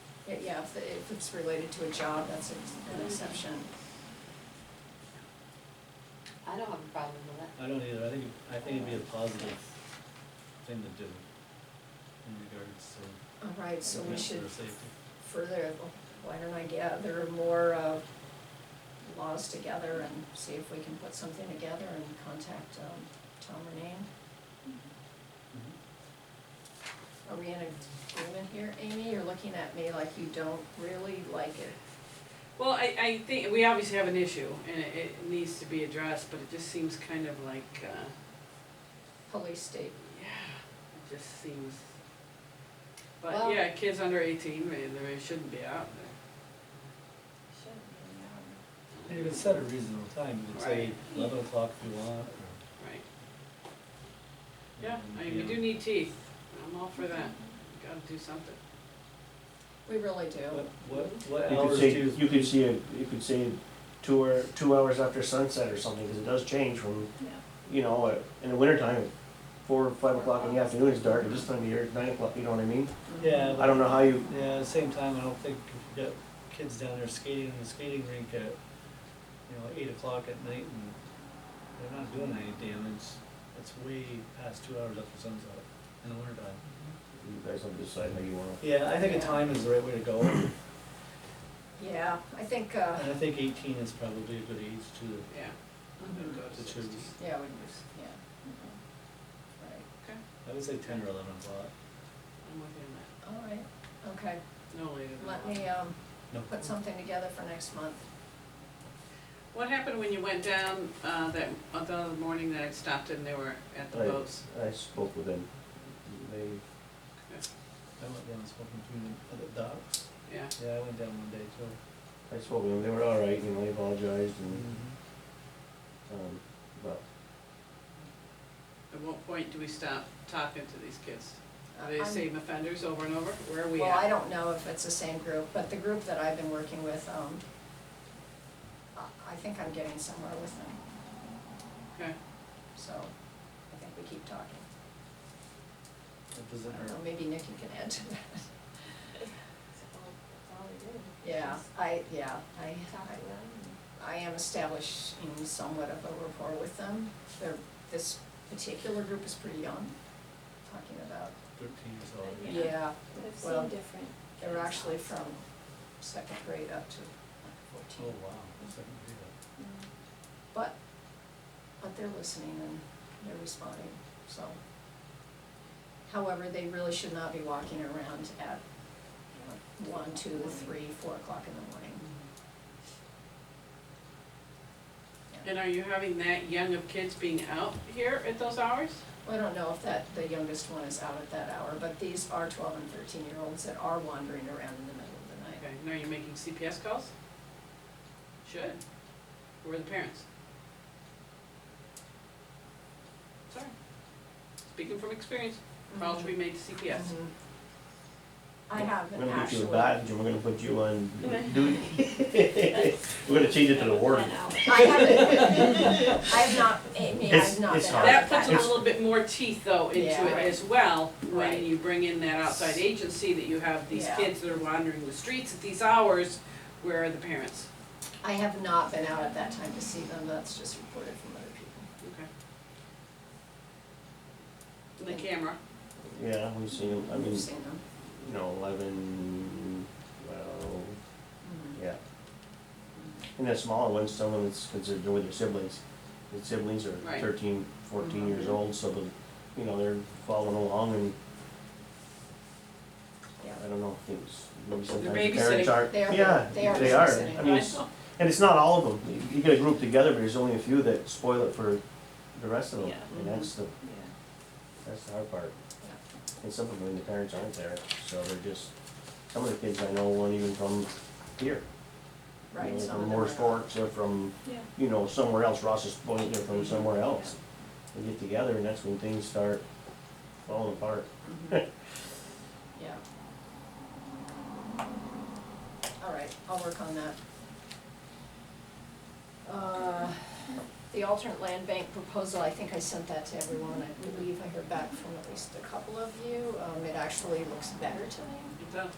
stuff, that Mm-hmm. if it's related to a job, that's ex- an exception. I don't have a problem with that. I don't either, I think, I think it'd be a positive thing to do in regards to All right, so we should cancer safety. further, why don't I gather more uh, laws together and see if we can put something together and contact um, Tom or Nan? Mm-hmm. Are we in agreement here, Amy? You're looking at me like you don't really like it. Well, I, I think, we obviously have an issue and it, it needs to be addressed, but it just seems kind of like, uh, Police state, yeah, it just seems. Well- But yeah, kids under eighteen, they, they shouldn't be out there. And you can set a reasonable time, you could say Right. eleven o'clock if you want, or. Right, yeah, I mean, we do need teeth, I'm all for that, We gotta do something. we really do. What, what, what You could hours do say, you? you could see, a you could say two or, two hours after sunset or something, because it does change from, you know, uh, in the wintertime, four or five o'clock in the afternoon, it's dark, and this time of year, it's nine o'clock, you know what I mean? Yeah, I don't know how you, Yeah, at the same time, I don't think if you got kids down there skating in the skating rink at, you know, eight o'clock at night and they're not doing any damage. It's way past two hours after sunset in the winter time. you guys have to decide how you wanna. Yeah, I think a time is the right way to go, and Yeah, I think, uh, I think eighteen is probably a good age to, Yeah, I'm Mm-hmm. gonna go to to sixteen. choose. yeah, we just, yeah. mhm. Right, I would say ten or eleven o'clock. I'm with you all right, okay. on that, no later than Let that. me um, No, put something together for next month. What happened when you went down, uh, that, uh, the other morning that I stopped and they were at the Right. boats? I spoke with them, they, I went down and spoke to them at the dock. Yeah, Yeah, I went down one day too. I spoke with them, they were all right, you know, they apologized and, um, but at what point do we stop talking to these kids? Uh, Are they the I'm- same offenders over and over? Where are we at? Well, I don't know if it's the same group, but the group that I've been working with, um, I- I think I'm getting somewhere with them, Okay, so I think we keep talking. It I doesn't don't hurt. know, maybe Nikki can add to that. all we do. Yeah, I, yeah, I, Talk to them. I am establishing somewhat of a rapport with them. They're, this particular group is pretty young, talking about, Thirteen years old. Yeah. yeah, and- I've Well, seen different. they're actually from second grade up to like Oh, fourteen. wow, that's like a big one. But, but they're listening and they're responding, so. However, they really should not be walking around at you know, one, two, three, four o'clock in the morning. and are you having that young of kids being out here at those hours? Well, I don't know if that, the youngest one is out at that hour, but these are twelve and thirteen year olds that are wandering around in the middle of the night. Okay, now you're making CPS calls? Should. Where are the parents? Sorry. Speaking from experience, calls Mm-hmm. should be made to CPS. Mm-hmm. Mhm. I have we're an gonna put you in actual, I badge and we're gonna put you on duty. We're gonna change it to the word. An hour. haven't, I have not, Amy, I It's- have not been it's out hard. at That puts a hour. little bit more teeth though into Yeah. it as well, Right. when you bring in that outside agency, that you have these Yeah. kids that are wandering the streets at these hours, where are the parents? I have not been out at that time to see them, that's just reported from other people. Okay. And The camera, Yeah, we've seen, 'em. I mean, We've seen them. you know, eleven, well, Mm-hmm. yeah. And the smaller ones, some of it's considered with their siblings. The siblings are Right. thirteen, fourteen years Mhm. old, so the, you know, they're following along and, Yeah. I don't know, things, maybe They're sometimes the parents babysitting. aren't. They are- they are Yeah, they are, babysitting. I mean, it's, and it's not all of them. You- You get a group together, but there's only a few that spoil it for the rest of them. Yeah. And that's the, Yeah. that's the hard part. And some of them, the parents aren't there, so they're just, some of the kids I know weren't even from here. You know, Right, some From of them are. Morris Forks, they're from, Yeah. you know, somewhere else, Ross's Point, they're from somewhere else. They get together and that's when things start falling apart. Yeah. All right, I'll work on that. Uh, The alternate land bank proposal, I think I sent that to everyone, I believe I heard back from at least a couple of you. Um, It actually looks better to me. it does.